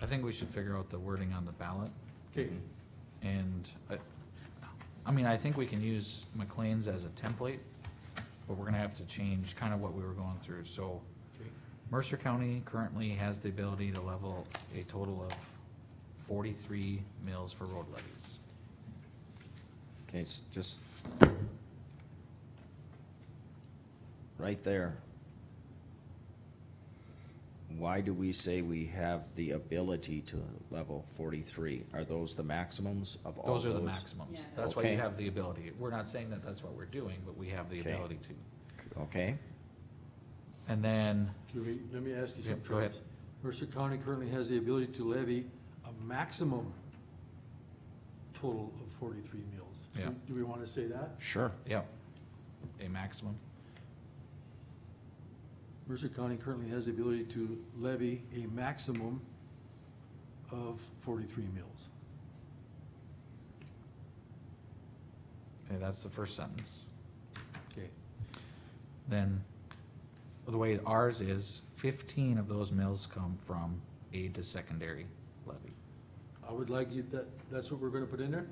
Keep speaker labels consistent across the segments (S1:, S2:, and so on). S1: I think we should figure out the wording on the ballot,
S2: Okay,
S1: and I, I mean, I think we can use McLean's as a template, but we're gonna have to change kind of what we were going through, so Mercer County currently has the ability to level a total of forty-three mills for road levies.
S3: Okay, s- just. Right there. Why do we say we have the ability to level forty-three? Are those the maximums of all those?
S1: Those are the maximums,
S4: Yeah.
S1: that's why you
S3: Okay.
S1: have the ability, we're not saying that that's what we're doing, but we have the
S3: Okay.
S1: ability to.
S3: Okay,
S1: And then,
S2: can we- let me ask you
S1: Yeah,
S2: something,
S1: go ahead.
S2: Travis. Mercer County currently has the ability to levy a maximum total of forty-three mills.
S1: Yeah.
S2: Do we wanna say that?
S3: sure.
S1: yep, a maximum,
S2: Mercer County currently has the ability to levy a maximum of forty-three mills.
S1: okay, that's the first sentence.
S2: Okay,
S1: then the way ours is, fifteen of those mills come from aid to secondary levy.
S2: I would like you, that, that's what we're gonna put in there?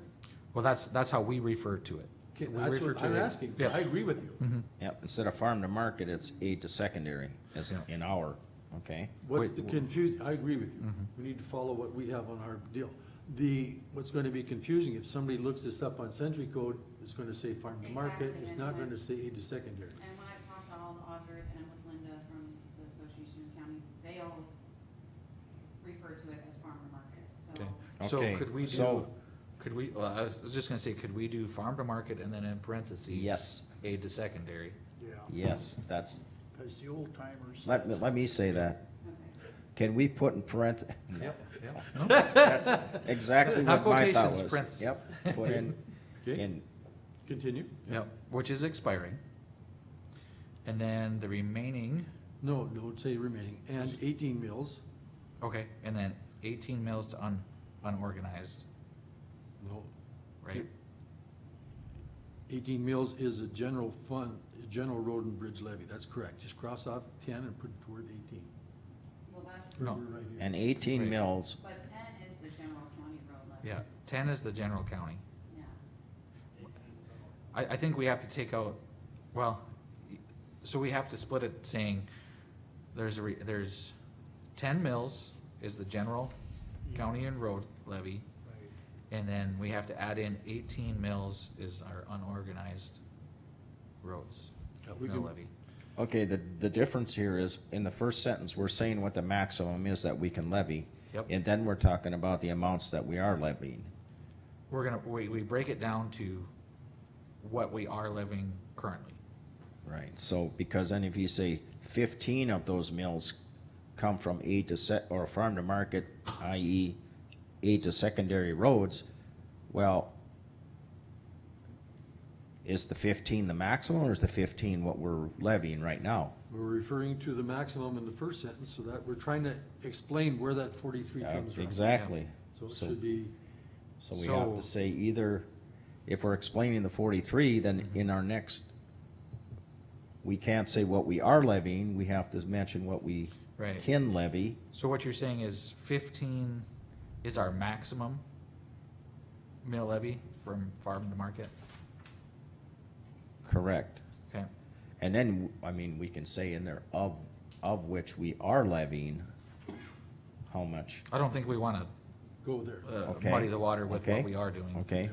S1: Well, that's, that's how we refer to it.
S2: Okay,
S1: We
S2: that's
S1: refer
S2: what
S1: to
S2: I'm
S1: it-
S2: asking. I
S1: Yeah.
S2: agree with you.
S1: Mhm.
S3: Yep, instead of farm to market, it's aid to secondary as
S1: Yeah.
S3: in our, okay?
S2: What's
S1: Wait,
S2: the
S1: wh- Mm-hmm.
S2: confuse, I agree with you. We need to follow what we have on our deal. The, what's gonna be confusing, if somebody looks this up on Sentry Code, it's gonna say farm to market,
S4: Exactly,
S2: it's
S4: and
S2: not
S4: when-
S2: gonna say aid to secondary.
S4: And when I've talked to all the auditors and with Linda from the Association of Counties, they all refer to it as farmer market, so.
S1: Okay. So
S3: Okay,
S1: could we do,
S3: so-
S1: could we, well, I was just gonna say, could we do farm to market and then in parentheses?
S3: Yes.
S1: Aid to secondary.
S5: Yeah,
S3: Yes, that's,
S5: because the old timers.
S3: let me, let me say that.
S4: Okay.
S3: Can we put in parent,
S1: Yep, yep.
S3: that's exactly
S1: Not
S3: what my thought
S1: quotations,
S3: was.
S1: parentheses.
S3: Yep, put in,
S2: Okay.
S3: in
S2: Continue?
S1: Yep, which is expiring. And then the remaining,
S2: No, no, say remaining, and eighteen mills,
S1: okay, and then eighteen mills to un, unorganized,
S2: no,
S1: right?
S2: eighteen mills is a general fund, a general road and bridge levy, that's correct. Just cross off ten and put toward eighteen.
S4: Well, that's,
S1: No.
S2: We're right here.
S3: And eighteen
S1: Right.
S3: mills,
S4: but ten is the general county road levy.
S1: Yeah, ten is the general county.
S4: Yeah.
S1: I, I think we have to take out, well, so we have to split it saying, there's a, re- there's ten mills is the general
S2: Mm-hmm.
S1: county and road levy,
S5: Right.
S1: and then we have to add in eighteen mills is our unorganized roads,
S2: Yeah, we
S1: mill
S2: can-
S1: levy.
S3: okay, the, the difference here is, in the first sentence, we're saying what the maximum is that we can levy.
S1: Yep.
S3: And then we're talking about the amounts that we are levying.
S1: We're gonna, we, we break it down to what we are living currently.
S3: Right, so, because then if you say fifteen of those mills come from aid to set, or farm to market, i.e. aid to secondary roads, well, is the fifteen the maximum, or is the fifteen what we're levying right now?
S2: We're referring to the maximum in the first sentence, so that, we're trying to explain where that forty-three
S3: Uh,
S2: comes from.
S3: Exactly.
S2: So it should be.
S3: So we have
S1: So-
S3: to say either, if we're explaining the forty-three, then
S1: Mm-hmm.
S3: in our next, we can't say what we are levying, we have to mention what we
S1: Right.
S3: can levy.
S1: So what you're saying is fifteen is our maximum mill levy from farm to market?
S3: Correct.
S1: Okay,
S3: And then, I mean, we can say in there of, of which we are levying, how much,
S1: I don't think we wanna
S2: Go there.
S1: uh,
S3: Okay.
S1: muddy the water with what
S3: Okay.
S1: we are doing.
S3: okay?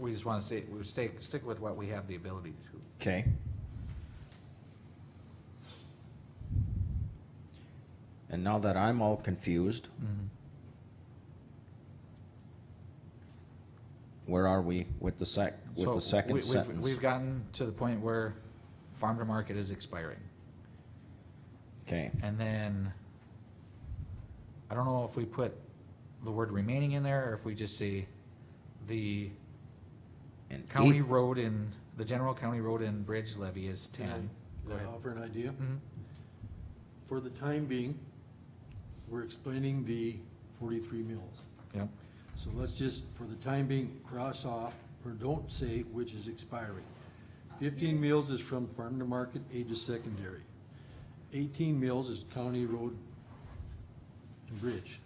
S1: We just wanna say, we stay, stick with what we have the ability to.
S3: Okay. And now that I'm all confused, where are we with the sec, with
S1: So
S3: the second
S1: we- we've-
S3: sentence?
S1: We've gotten to the point where farm to market is expiring.
S3: Okay,
S1: And then, I don't know if we put the word remaining in there, or if we just say the
S3: and
S1: county
S3: eight-
S1: road and, the general county road and bridge levy is ten. Go
S2: Can I
S1: ahead.
S2: offer an idea?
S1: Mhm.
S2: For the time being, we're explaining the forty-three mills.
S1: Yep,
S2: So let's just, for the time being, cross off, or don't say which is expiring. Fifteen mills is from farm to market, aid to secondary. Eighteen mills is county road and bridge.